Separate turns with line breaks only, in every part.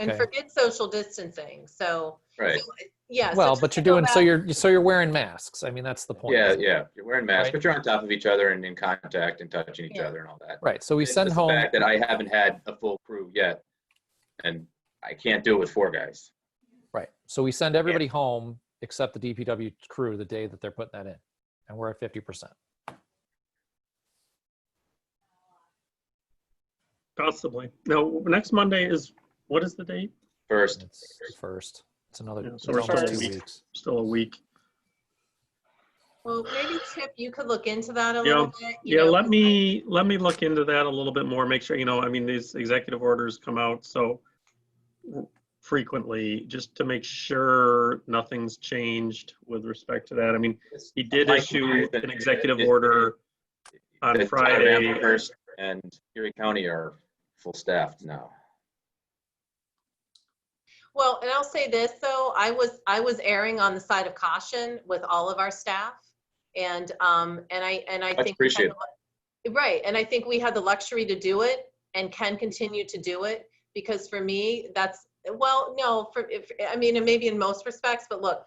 and
Okay.
forget social distancing. So,
Right,
yeah. so
Well,
to
but you're
go
doing, so
back-
you're, so you're wearing masks. I mean, that's the point.
yeah,
isn't it?
yeah, you're wearing masks,
Right.
but you're on top of each other and in contact and touching each
Yeah.
other and all that.
Right, so we
It's
send
just the
home,
fact That I haven't had a full crew yet, and I can't do it with four guys.
right, so we send everybody home except the DPW crew the day that they're putting that in. And we're at fifty percent.
Possibly. No, next Monday is, what is the date?
First,
It's the first, it's another,
Yeah, so
it's
we're
almost
starting
two
week.
weeks.
Still a week.
Well, maybe Chip, you could look into that a
Yeah.
little bit. you
Yeah,
know,
let
'cause
me, let me look into that a little bit more, make sure, you know, I mean, these executive orders come out so frequently, just to make sure nothing's changed with respect to that. I mean, he did
Mike
issue
Myers and-
an executive
it-
order on
the
Friday.
Tyrrell First and Erie County are full staffed now.
Well, and I'll say this though, I was I was erring on the side of caution with all of our staff, and um and I and I
Much
think we had
appreciated.
the lu- right, and I think we had the luxury to do it and can continue to do it because for me that's well no for if, I mean and maybe in most respects, but look.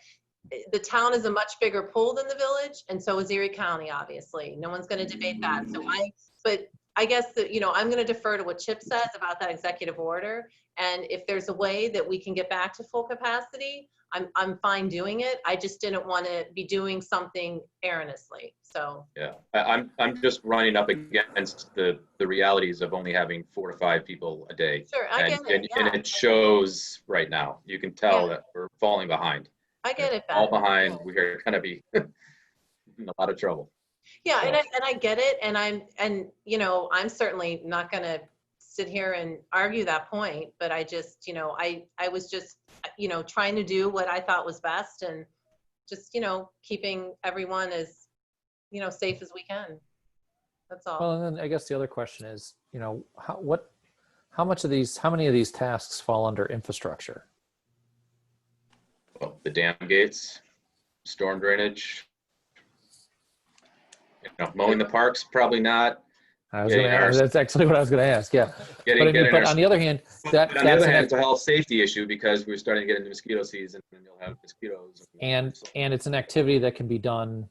The town is a much bigger pool than the village, and so is Erie County, obviously. No one's going to debate that. So I, but I guess that, you know, I'm going to defer to what Chip says about that executive order. And if there's a way that we can get back to full capacity, I'm, I'm fine doing it. I just didn't want to be doing something erroneously. So,
Yeah, I, I'm, I'm just running up against the, the realities of only having four to five people a day.
sure, I
And,
get
and,
it.
and
Yeah,
it shows right now. You can tell
Yeah.
that we're falling behind.
I get it.
All
Beth.
behind. We're gonna be in a lot of trouble.
Yeah, and I,
Yeah.
and I get it, and I'm, and, you know, I'm certainly not gonna sit here and argue that point, but I just, you know, I, I was just, you know, trying to do what I thought was best and just, you know, keeping everyone as, you know, safe as we can. That's all.
Well, and then I guess the other question is, you know, how, what, how much of these, how many of these tasks fall under infrastructure?
Well, The dam gates, storm drainage. You know, mowing the parks, probably not.
I was
Yeah,
gonna,
yeah,
ask-
ours-
that's actually what I was gonna ask, yeah. But I
Getting,
mean,
getting
but
our,
on the other hand, that,
on
that's
the other
an
hand,
ex-
it's a health safety issue because we're starting to get into mosquito season and you'll have mosquitoes.
and
So-
and it's an activity that can be done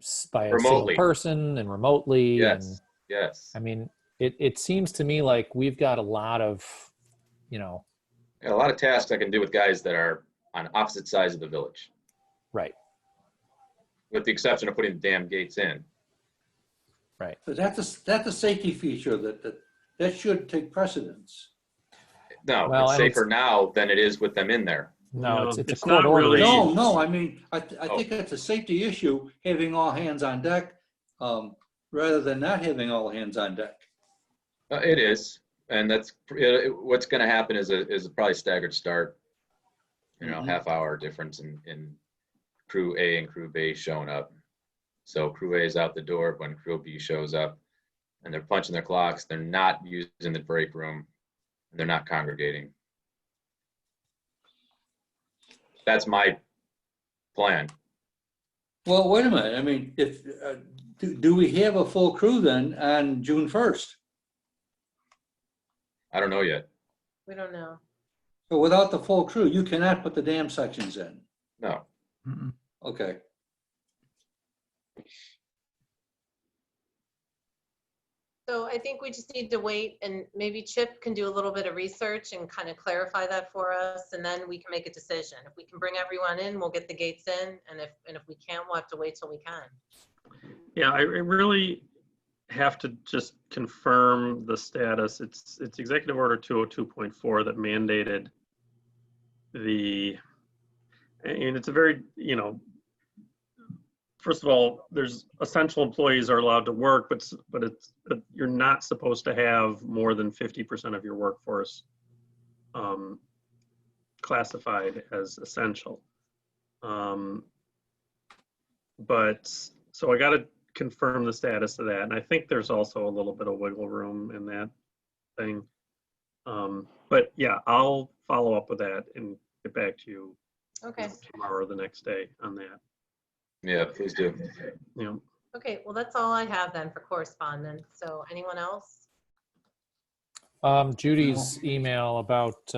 s- by a single
Remotely.
person and remotely and
Yes, yes.
i mean it, it seems to me like we've got a lot of you know
Got A lot of tasks I can do with guys that are on opposite sides of the village,
right
with the exception of putting the dam gates in.
But that's a, that's a safety feature that, that, that should take precedence.
No,
Well,
it's
and it's-
safer now than it is with them in there.
no,
No,
it's, it's,
it's
a
not
court order
really-
issue.
No, no, I mean, I, th- I
Oh.
think it's a safety issue, having all hands on deck, um, rather than not having all hands on deck.
Uh, It is, and that's, it- it- what's gonna happen is a, is probably staggered start. You know,
Mhm.
half hour difference in, in crew A and crew B showing up. So crew A is out the door when crew B shows up, and they're punching their clocks, they're not using the break room, and they're not congregating. That's my plan.
Well, wait a minute, I mean, if, uh, do, do we have a full crew then on June first?
I don't know yet.
We don't know.
But without the full crew, you cannot put the dam sections in,
No,
okay?
So I think we just need to wait and maybe Chip can do a little bit of research and kind of clarify that for us and then we can make a decision. If we can bring everyone in, we'll get the gates in and if, and if we can't, we'll have to wait till we can.
Yeah, I I really have to just confirm the status. It's, it's Executive Order 202.4 that mandated the, and it's a very, you know, first of all, there's essential employees are allowed to work, but, s- but it's, but you're not supposed to have more than 50% of your workforce um, classified as essential. Um, But, so I got to confirm the status of that. And I think there's also a little bit of wiggle room in that thing. Um, but yeah, I'll follow up with that and get back to you you
Okay,
know, tomorrow or the next day on that.
yeah, please do.
You know,
okay, well, that's all I have then for correspondence. So anyone else?
um, judy's email about